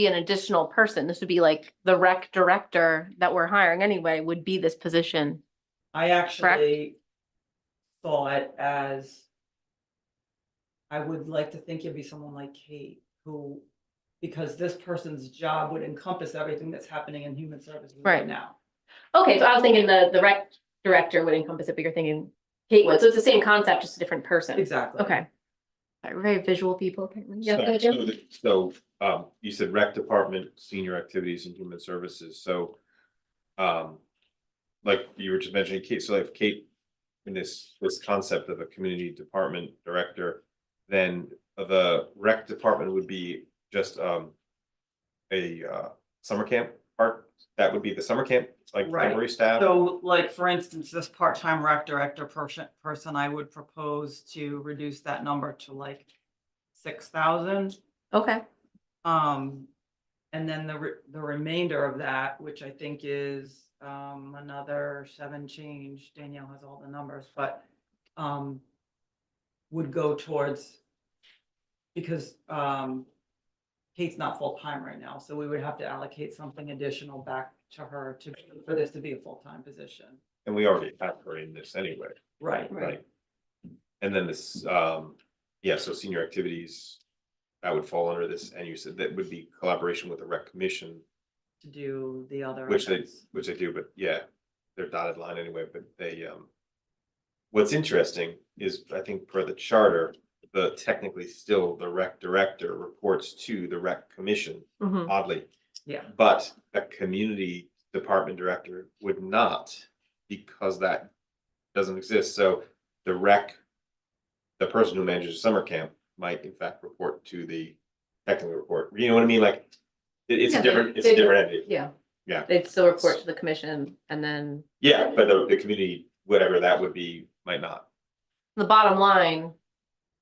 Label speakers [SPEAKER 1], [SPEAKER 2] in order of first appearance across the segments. [SPEAKER 1] be an additional person. This would be like the rec director that we're hiring anyway would be this position.
[SPEAKER 2] I actually saw it as I would like to think it'd be someone like Kate who, because this person's job would encompass everything that's happening in human services right
[SPEAKER 1] Right.
[SPEAKER 2] now.
[SPEAKER 1] Okay, so I was thinking the, the rec director would encompass it, but you're thinking Kate would. So it's the same concept, just a different person.
[SPEAKER 2] Exactly.
[SPEAKER 1] Okay. We're Very visual people apparently.
[SPEAKER 3] So-
[SPEAKER 1] Yeah,
[SPEAKER 3] so the- So, um, you said rec department, senior activities and human services, so, um, like you were just mentioning Kate, so if Kate, in this, this concept of a community department director, then the rec department would be just, um, a, uh, summer camp part, that would be the summer camp, like
[SPEAKER 2] Right.
[SPEAKER 3] temporary staff?
[SPEAKER 2] So like, for instance, this part-time rec director person, person, I would propose to reduce that number to like six thousand.
[SPEAKER 1] okay.
[SPEAKER 2] Um, and then the, re- the remainder of that, which I think is, um, another seven change, Danielle has all the numbers, but, um, would go towards, because, um, Kate's not full-time right now, so we would have to allocate something additional back to her to, for this to be a full-time position.
[SPEAKER 3] And we already have her in this anyway.
[SPEAKER 2] Right.
[SPEAKER 1] Right.
[SPEAKER 3] Right. And then this, um, yeah, so senior activities, that would fall under this, and you said that would be collaboration with the rec commission,
[SPEAKER 2] To do the other.
[SPEAKER 3] Which they-
[SPEAKER 2] events.
[SPEAKER 3] which they do, but yeah, they're dotted line anyway, but they, um. What's interesting is, I think per the charter, the technically still the rec director reports to the rec commission,
[SPEAKER 1] Mhm.
[SPEAKER 3] oddly.
[SPEAKER 2] Yeah.
[SPEAKER 3] But a community department director would not, because that doesn't exist, so the rec. The person who manages summer camp might in fact report to the technical report, you know what I mean, like. it- it's
[SPEAKER 1] Yeah,
[SPEAKER 3] a
[SPEAKER 1] they-
[SPEAKER 3] different, it's a
[SPEAKER 1] they-
[SPEAKER 3] different entity,
[SPEAKER 1] Yeah.
[SPEAKER 3] Yeah.
[SPEAKER 1] They'd still report to the commission and then
[SPEAKER 3] yeah, but the, the community, whatever that would be, might not.
[SPEAKER 1] the bottom line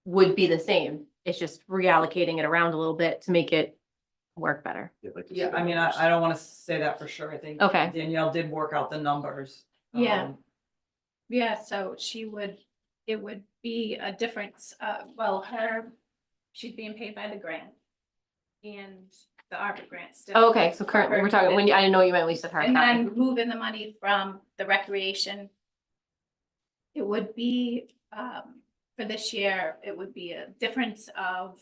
[SPEAKER 1] would be the same. It's just reallocating it around a little bit to make it work better.
[SPEAKER 3] like you
[SPEAKER 2] Yeah,
[SPEAKER 3] said,
[SPEAKER 2] I mean, I, I don't want to say that for sure, I think.
[SPEAKER 1] Okay.
[SPEAKER 2] Danielle did work out the numbers.
[SPEAKER 4] Yeah.
[SPEAKER 2] um,
[SPEAKER 4] Yeah, so she would, it would be a difference, uh, well, her, she's being paid by the grant. And the ARPA grant still.
[SPEAKER 1] Oh, Okay, so currently, we're talking, when, you- I didn't know you meant when you said hard
[SPEAKER 4] And
[SPEAKER 1] copy.
[SPEAKER 4] then moving the money from the recreation. It would be, um, for this year, it would be a difference of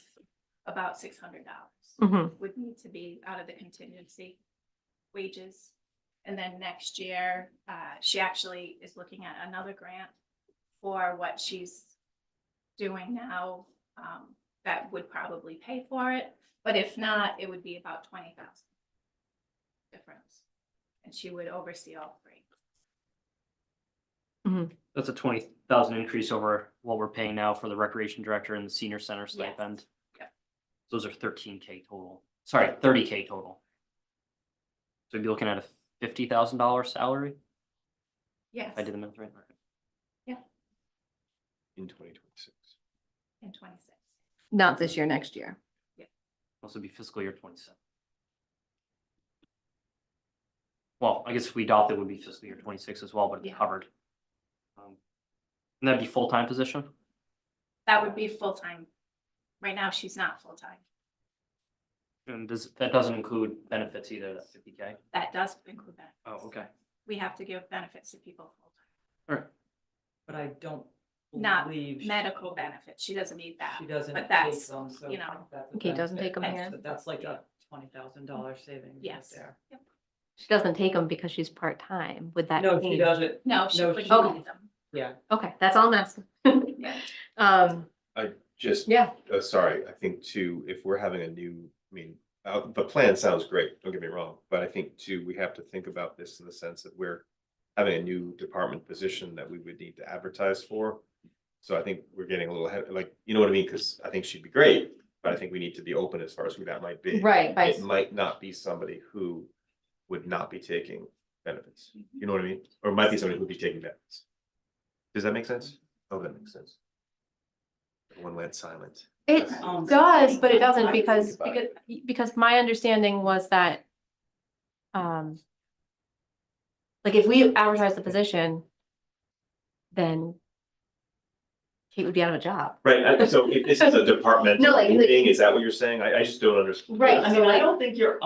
[SPEAKER 4] about six hundred dollars.
[SPEAKER 1] Mhm.
[SPEAKER 4] Would need to be out of the contingency wages. And then next year, uh, she actually is looking at another grant for what she's doing now. Um, that would probably pay for it, but if not, it would be about twenty thousand difference. And she would oversee all three.
[SPEAKER 5] That's a twenty thousand increase over what we're paying now for the recreation director and the senior center stipend.
[SPEAKER 4] Yep.
[SPEAKER 5] Those are thirteen K total, sorry, thirty K total. So we'd be looking at a fifty thousand dollar salary,
[SPEAKER 4] Yes,
[SPEAKER 5] if I did the math right.
[SPEAKER 3] In twenty twenty-six.
[SPEAKER 4] in twenty-six.
[SPEAKER 1] Not this year, next year.
[SPEAKER 5] Also be fiscal year twenty-seven. Well, I guess if we adopt it, would be fiscal year twenty-six as well, but it's
[SPEAKER 4] Yeah.
[SPEAKER 5] covered. Um, And that'd be full-time position?
[SPEAKER 4] That would be full-time. Right now, she's not full-time.
[SPEAKER 5] And does, that doesn't include benefits either, that fifty K?
[SPEAKER 4] That does include benefits.
[SPEAKER 5] Oh, okay.
[SPEAKER 4] We have to give benefits to people full-time.
[SPEAKER 2] But I don't
[SPEAKER 4] Not
[SPEAKER 2] believe. she-
[SPEAKER 4] Medical benefits, she doesn't need that.
[SPEAKER 2] She doesn't.
[SPEAKER 4] but
[SPEAKER 2] take
[SPEAKER 4] that's,
[SPEAKER 2] them, so
[SPEAKER 4] you know,
[SPEAKER 2] that's a
[SPEAKER 1] Okay, doesn't take
[SPEAKER 2] benefit.
[SPEAKER 1] them
[SPEAKER 2] That's-
[SPEAKER 1] here.
[SPEAKER 2] That's like a twenty thousand dollar savings. right
[SPEAKER 4] Yes.
[SPEAKER 2] there.
[SPEAKER 4] Yep.
[SPEAKER 1] She doesn't take them because she's part-time. Would that
[SPEAKER 2] No, she
[SPEAKER 1] change?
[SPEAKER 2] doesn't,
[SPEAKER 4] No, she
[SPEAKER 2] No,
[SPEAKER 4] wouldn't
[SPEAKER 2] she-
[SPEAKER 4] need them.
[SPEAKER 2] yeah.
[SPEAKER 1] Okay, that's all I'm asking.
[SPEAKER 4] Yeah.
[SPEAKER 1] Um,
[SPEAKER 3] Just,
[SPEAKER 1] yeah,
[SPEAKER 3] uh, sorry, I think too, if we're having a new, I mean, uh, the plan sounds great, don't get me wrong, but I think too, we have to think about this in the sense that we're having a new department position that we would need to advertise for. So I think we're getting a little ahead, like, you know what I mean? Because I think she'd be great, but I think we need to be open as far as who that might be.
[SPEAKER 1] right, by,
[SPEAKER 3] It might not be somebody who would not be taking benefits. You know what I mean? Or it might be somebody who'd be taking benefits. Does that make sense? Oh, that makes sense. One went silent.
[SPEAKER 1] it
[SPEAKER 2] Um,
[SPEAKER 1] does, but it doesn't
[SPEAKER 2] I think
[SPEAKER 1] because,
[SPEAKER 3] about
[SPEAKER 1] because, because my understanding was that um, like if we advertise the position, then Kate would be out of a job.
[SPEAKER 3] Right, I- so if this is a departmental
[SPEAKER 1] No, like-
[SPEAKER 3] meeting, is that what you're saying? I, I just don't understand.
[SPEAKER 1] Right,
[SPEAKER 2] I mean, I don't think you're